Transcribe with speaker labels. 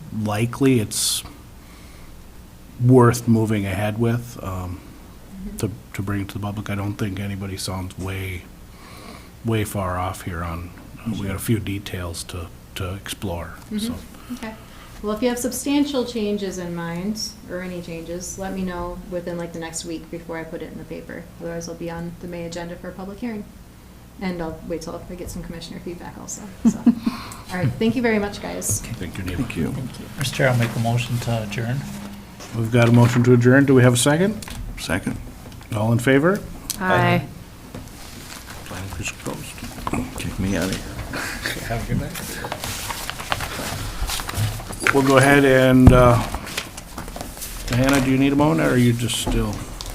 Speaker 1: likely it's worth moving ahead with, um, to, to bring to the public. I don't think anybody sounds way, way far off here on, uh, we got a few details to, to explore, so.
Speaker 2: Okay. Well, if you have substantial changes in mind, or any changes, let me know within like the next week before I put it in the paper. Otherwise, I'll be on the May agenda for a public hearing. And I'll wait till I get some commissioner feedback also, so. All right, thank you very much, guys.
Speaker 1: Thank you, Neva.
Speaker 3: you.
Speaker 4: Mr. Chair, I'll make a motion to adjourn.
Speaker 1: We've got a motion to adjourn. Do we have a second?
Speaker 3: Second.
Speaker 1: All in favor?
Speaker 5: Hi.
Speaker 3: Planning is closed. Kick me out of here.
Speaker 1: We'll go ahead and, uh, Hannah, do you need a moment, or are you just still?